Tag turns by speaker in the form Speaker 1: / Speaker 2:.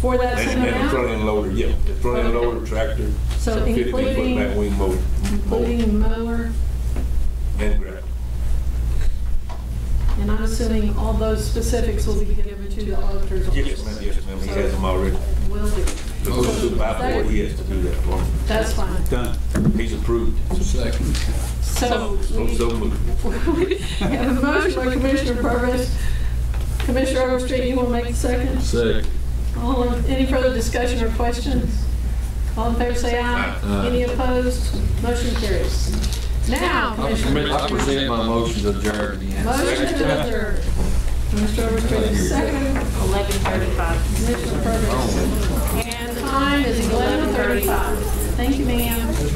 Speaker 1: for that
Speaker 2: And
Speaker 1: same
Speaker 2: and the front
Speaker 1: amount?
Speaker 2: end loader, yeah, the front end loader, tractor,
Speaker 1: So
Speaker 2: fifty-eight foot back
Speaker 1: including,
Speaker 2: wing mower, mower,
Speaker 1: including mower,
Speaker 2: and grab.
Speaker 1: and I'm assuming all those specifics will be given to the auditor's
Speaker 2: Yes, ma'am,
Speaker 1: office?
Speaker 2: yes, ma'am, he has them already.
Speaker 1: Will do.
Speaker 2: The little supervisor, he has to do that for me.
Speaker 1: That's fine.
Speaker 3: Done.
Speaker 2: He's approved.
Speaker 1: So
Speaker 2: So,
Speaker 1: we
Speaker 2: so moved.
Speaker 1: we have a motion by Commissioner Purvis. Commissioner Overstreet, you want to make the second?
Speaker 4: Second.
Speaker 1: All, in- any further discussion or questions? All in favor, say aye. Any opposed? Motion carries. Now, Commissioner.
Speaker 4: I present my motion to adjourn.
Speaker 1: Motion to adjourn. Mr. Overstreet, second.
Speaker 5: 11:35.
Speaker 1: Commissioner Purvis. And time is 11:35. Thank you, ma'am.